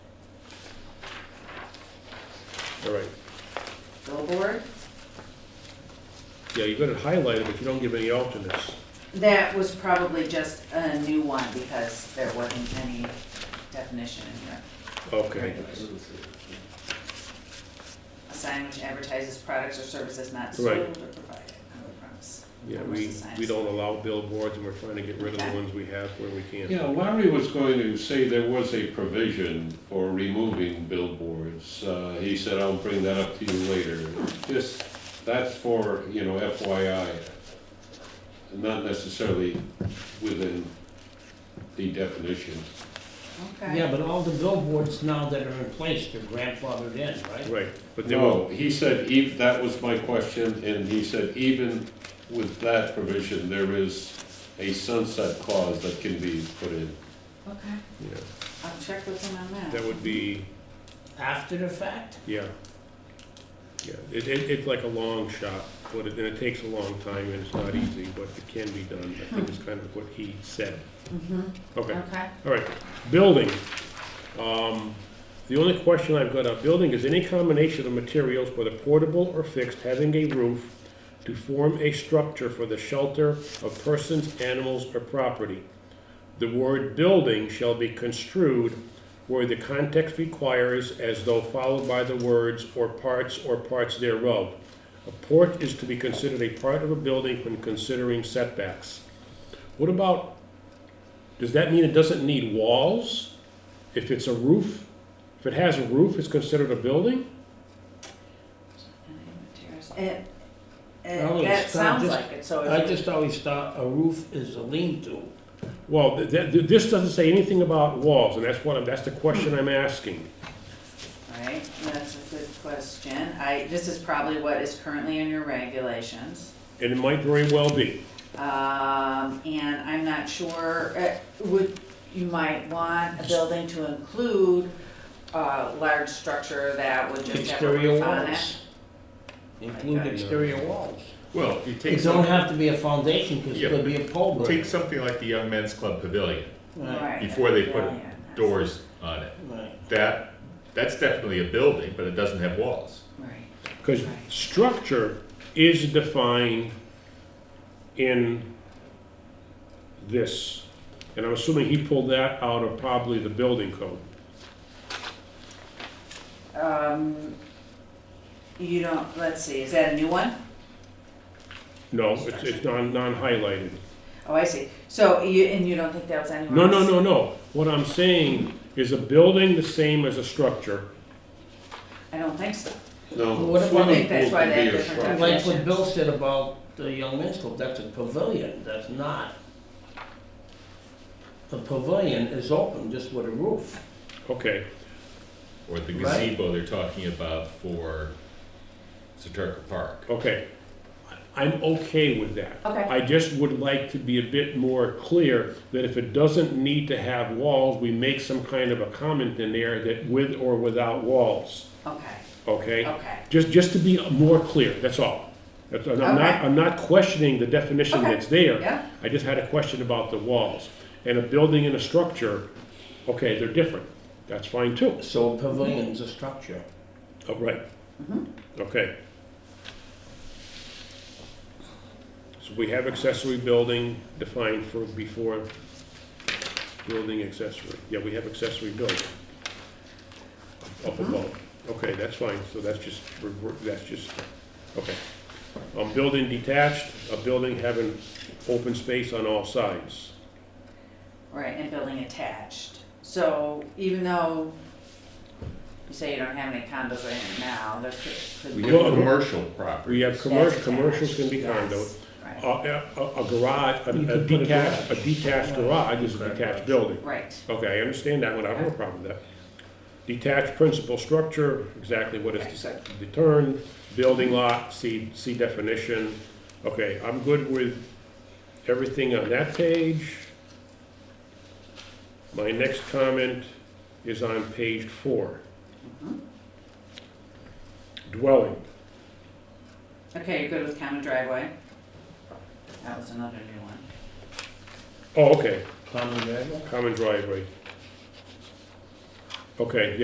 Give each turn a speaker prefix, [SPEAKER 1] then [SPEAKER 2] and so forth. [SPEAKER 1] All right.
[SPEAKER 2] billboard.
[SPEAKER 1] Yeah, you better highlight it, but you don't give any alternates.
[SPEAKER 2] That was probably just a new one because there wasn't any definition in here.
[SPEAKER 1] Okay.
[SPEAKER 2] A sign which advertises products or services not sold or
[SPEAKER 1] Right.
[SPEAKER 2] provided on the premise.
[SPEAKER 1] Yeah,
[SPEAKER 2] That was
[SPEAKER 1] we,
[SPEAKER 2] the sign.
[SPEAKER 1] we don't allow billboards, and we're trying to get rid of the
[SPEAKER 2] Okay.
[SPEAKER 1] ones we have where we can.
[SPEAKER 3] Yeah, Larry was going to say there was a provision for removing billboards. Uh, He said, I'll bring that up to you later. Just, that's for, you know, FYI, not necessarily within the definition.
[SPEAKER 2] Okay,
[SPEAKER 4] Yeah, but all the billboards now that are in place, they're grandfathered in, right?
[SPEAKER 1] Right, but they won't,
[SPEAKER 3] No, he said, ev- that was my question, and he said, even with that provision, there is a sunset clause that can be put in.
[SPEAKER 2] okay,
[SPEAKER 1] yeah,
[SPEAKER 2] I'll check with him on that.
[SPEAKER 1] that would be,
[SPEAKER 4] After the fact?
[SPEAKER 1] yeah. Yeah, it, it, it's like a long shot, but it, and it takes a long time, and it's not easy, but it can be done. I think it's kind of what he said.
[SPEAKER 2] Mhm,
[SPEAKER 1] Okay.
[SPEAKER 2] Okay,
[SPEAKER 1] All right, building. Um, The only question I've got on building is any combination of materials, whether portable or fixed, having a roof to form a structure for the shelter of persons, animals, or property. The word building shall be construed where the context requires as though followed by the words or parts or parts thereof. A porch is to be considered a part of a building when considering setbacks. What about does that mean it doesn't need walls? If it's a roof, if it has a roof, it's considered a building?
[SPEAKER 2] Any materials- It,
[SPEAKER 4] Well,
[SPEAKER 2] it,
[SPEAKER 4] Oh, it's
[SPEAKER 2] that
[SPEAKER 4] not
[SPEAKER 2] sounds
[SPEAKER 4] just-
[SPEAKER 2] like it, so
[SPEAKER 4] I
[SPEAKER 2] if you-
[SPEAKER 4] just always thought a roof is a lean-to.
[SPEAKER 1] Well, th- th- this doesn't say anything about walls, and that's what, I'm- that's the question I'm asking.
[SPEAKER 2] Right, that's a good question. I, this is probably what is currently in your regulations.
[SPEAKER 1] And it might very well be.
[SPEAKER 2] Um, and I'm not sure, uh, would, you might want a building to include a large structure that would just have a
[SPEAKER 4] Exterior
[SPEAKER 2] roof on it?
[SPEAKER 4] walls. Include exterior walls.
[SPEAKER 5] Well, you take
[SPEAKER 4] It don't
[SPEAKER 5] some,
[SPEAKER 4] have to be a foundation, because it
[SPEAKER 5] Yeah,
[SPEAKER 4] could be a pole
[SPEAKER 5] take
[SPEAKER 4] barn.
[SPEAKER 5] something like the Young Men's Club Pavilion
[SPEAKER 4] Right,
[SPEAKER 5] before they put
[SPEAKER 2] Yeah, yeah, that's-
[SPEAKER 5] doors on it.
[SPEAKER 4] right.
[SPEAKER 5] That that's definitely a building, but it doesn't have walls.
[SPEAKER 2] Right,
[SPEAKER 1] Because structure is defined in this. And I'm assuming he pulled that out of probably the building code.
[SPEAKER 2] um, you don't, let's see, is that a new one?
[SPEAKER 1] No, it's, it's non, non-highlighted.
[SPEAKER 2] Oh, I see. So you, and you don't think that was anywhere
[SPEAKER 1] No,
[SPEAKER 2] else?
[SPEAKER 1] no, no, no. What I'm saying is a building the same as a structure.
[SPEAKER 2] I don't think so.
[SPEAKER 3] No,
[SPEAKER 4] What about-
[SPEAKER 2] I
[SPEAKER 3] swimming
[SPEAKER 2] think that's
[SPEAKER 3] pool
[SPEAKER 2] why
[SPEAKER 3] can
[SPEAKER 2] they
[SPEAKER 3] be
[SPEAKER 2] have
[SPEAKER 3] a
[SPEAKER 2] different
[SPEAKER 3] structure.
[SPEAKER 4] Like what Bill said about the Young Men's Club, that's a pavilion, that's not. The pavilion is open, just with a roof.
[SPEAKER 1] Okay,
[SPEAKER 5] Or the
[SPEAKER 4] Right.
[SPEAKER 5] gazebo they're talking about for Saturka Park.
[SPEAKER 1] okay. I'm okay with that.
[SPEAKER 2] Okay.
[SPEAKER 1] I just would like to be a bit more clear that if it doesn't need to have walls, we make some kind of a comment in there that with or without walls,
[SPEAKER 2] Okay,
[SPEAKER 1] okay?
[SPEAKER 2] okay.
[SPEAKER 1] Just, just to be more clear, that's all. That's- I'm not,
[SPEAKER 2] Okay.
[SPEAKER 1] I'm not questioning the definition
[SPEAKER 2] Okay.
[SPEAKER 1] that's there.
[SPEAKER 2] Yeah.
[SPEAKER 1] I just had a question about the walls. And a building and a structure, okay, they're different. That's fine too.
[SPEAKER 4] So a pavilion's a structure.
[SPEAKER 1] Oh, right. Okay. So we have accessory building defined for before building accessory. Yeah, we have accessory building. Up above. Okay, that's fine. So that's just, we're- we're- that's just, okay. Um, building detached, a building having open space on all sides.
[SPEAKER 2] Right, and building attached. So even though you say you don't have any condos right now, there could, could
[SPEAKER 5] We
[SPEAKER 2] be.
[SPEAKER 1] have Well,
[SPEAKER 5] have commercial property.
[SPEAKER 1] We have commercial,
[SPEAKER 2] That's
[SPEAKER 1] commercials can
[SPEAKER 2] attached,
[SPEAKER 1] be condos.
[SPEAKER 2] yes,
[SPEAKER 1] A,
[SPEAKER 2] Right,
[SPEAKER 1] Uh, a a garage,
[SPEAKER 4] You
[SPEAKER 1] a- a
[SPEAKER 4] could put a
[SPEAKER 1] detached, a
[SPEAKER 4] garage.
[SPEAKER 1] detached garage is a detached building.
[SPEAKER 2] right,
[SPEAKER 1] Okay, I understand that one, I don't have a problem with that. Detached principal structure, exactly what is the term, building lot, see, see definition. Okay, I'm good with everything on that page. My next comment is on page four. Dwelling.
[SPEAKER 2] okay, you're good with common driveway? That was another new one.
[SPEAKER 1] Oh, okay,
[SPEAKER 4] Common driveway?
[SPEAKER 1] common driveway. Okay, yeah,